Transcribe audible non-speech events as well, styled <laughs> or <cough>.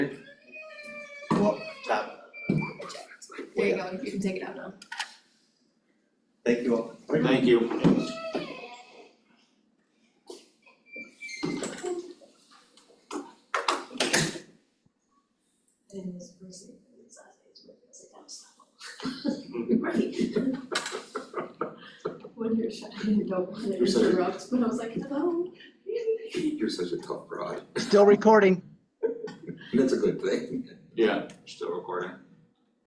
going, you can take it out now. Thank you all. Thank you. And this person, it's us, it's with us, it comes up. Right. <laughs> When you're shutting your door, and it You're such a- interrupts, but I was like, hello. You're such a tough broad. Still recording. That's a good thing. Yeah, still recording.